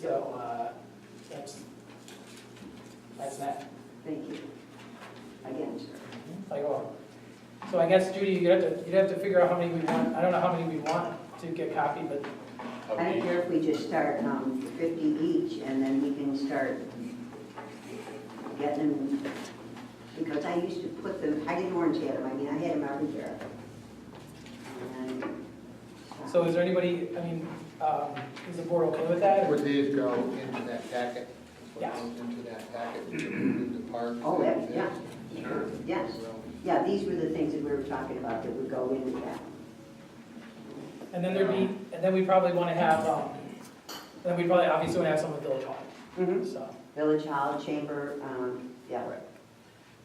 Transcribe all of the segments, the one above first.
So, uh, that's, that's that. Thank you. Again, sir. Like, oh. So I guess Judy, you'd have to, you'd have to figure out how many we want, I don't know how many we want to get copied, but I don't care if we just start um, 50 each, and then we can start getting them, because I used to put them, I didn't orange had them, I mean, I had them everywhere. And uh, then, So is there anybody, I mean, um, is the board okay with that? Would these go into that packet? Yeah. What goes into that packet, the park? Oh, that- yeah. Sure. Yes, yeah, these were the things that we were talking about that would go into that. And then there'd be, and then we probably want to have, um, then we probably obviously want to have some with Village Hall, so. Village Hall, Chamber, um, yeah.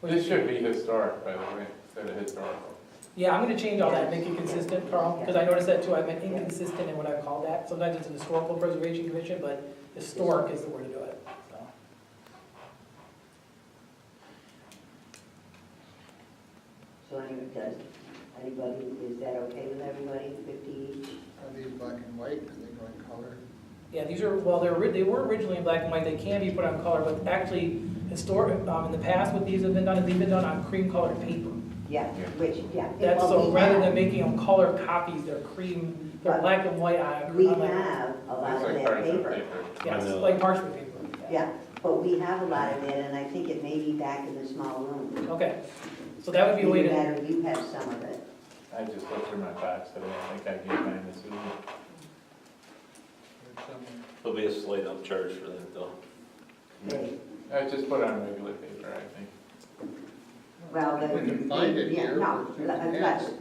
This should be historic, by the way, instead of historical. Yeah, I'm gonna change all that, make it consistent, Carl, because I noticed that too, I've been inconsistent in what I've called that. Sometimes it's an historical preservation commission, but historic is the word to do it, so. So anyway, does, anybody, is that okay with everybody, 50 each? Are these black and white, are they going color? Yeah, these are, well, they're, ori- they were originally in black and white, they can be put on color, but actually, historic, um, in the past, what these have been done, is they've been done on cream colored paper. Yeah, Yeah. which, yeah. it- That's, well, so we rather have- than making them color copies, they're cream, they're Right. black and white on. We on like- have a lot It's of like that parchment paper. paper. Yes, like parchment paper. Yeah, but we have a lot of that, and I think it may be back in the small room. Okay, so that would be a way to, Either that or you have some of it. I just looked through my box, but I don't think I gave mine this evening. Or something? There'll be a slight up charge for that though. They- I just put on regular paper, I think. Well, the. We can find it yeah, here, No, but you let- can let's, ask.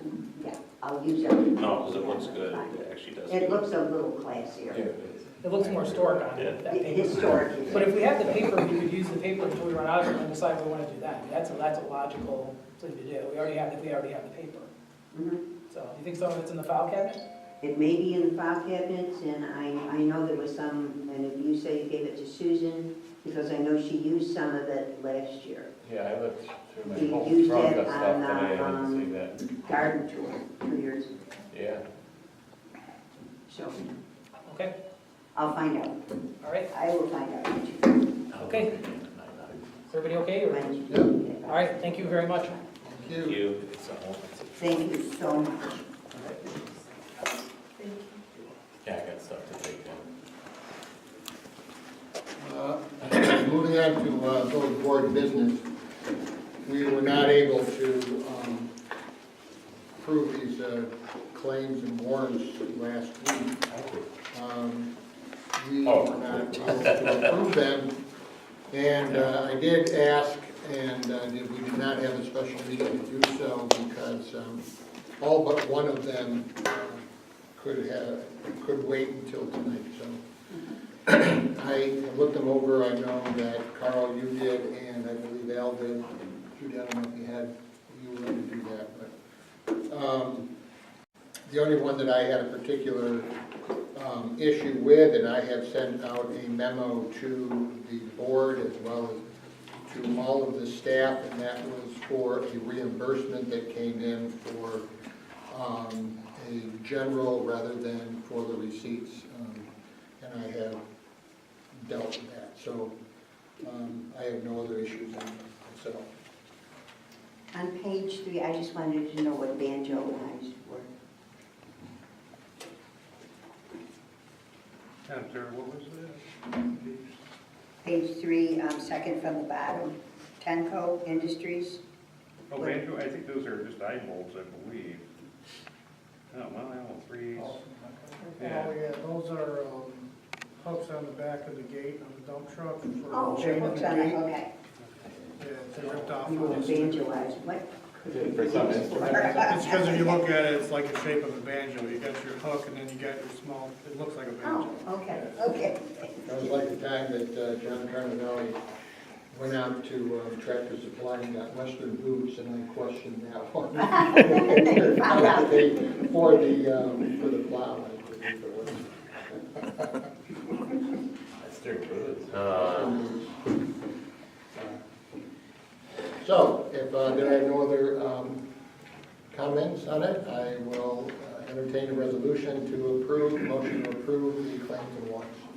yeah, I'll use it. No, because it looks good, it actually does. It look- looks a little Yeah, classier. it is. it looks more historic on it, that It- paper. Historic. But if we have the paper, we could use the paper until we run out of it and decide if we want to do that. That's, a that's a logical thing to do. We already have, we already have the paper. Mhm. So do you think some of it's in the file cabinet? It may be in the file cabinets, and I, I know there was some, and if you say you gave it to Susan, because I know she used some of it last year. Yeah, I looked through You my whole used trunk it of stuff on, uh, today, I didn't see um, that. garden tour two years ago. Yeah, So Okay, I'll find out. all right. I will find out. Okay. Is everybody okay? or- All All right, thank you very much. Thank Thank you. You, it's a whole, it's a- Thank you so much. yeah, I got stuff to take down. Uh, Moving on to uh, village board business, we were not able to um, approve these uh, claims and warrants last week. Um, We Oh. were not able to approve them, and uh, I did ask, and uh, did- we did not have a special meeting to do so because um, all but one of them uh, could have, could wait until tonight, so. I looked them over, I know that Carl, you did, and I believe Al did, you did, I don't know if you had, you were gonna do that, but, um, the only one that I had a particular, um, issue with, and I have sent out a memo to the board as well as to all of the staff, and that was for a reimbursement that came in for, um, a general rather than for the receipts, um, and I have dealt with that, so um, I have no other issues on myself. On page three, I just wanted to know what banjo lines were. I'm sorry, what was that? Page three, um, second from the bottom, Tenco Industries. Oh, banjo, I think those are just eye bulbs, I believe. Oh, well, I own three. Oh, yeah, those are um, hooks on the back of the gate on the dump truck Oh, Oh, for sure, chaining the what's on it? gate. Okay. Yeah, they ripped off. You were of us. banjo lines, what? For some It's because if you look at it, it's like the shape of a banjo. You got your hook and then you got your small, it looks like a Oh, banjo. okay, okay. That was like the time that uh, John Carnevale went out to um, Tractor Supply and got Western boots, and I questioned that one. And then you found out. They- For the, um, for the plow, I believe it was. That's their goods. So, if uh, there are no other um, comments on it, I will uh, entertain a resolution to approve, motion to approve the claims and warrants.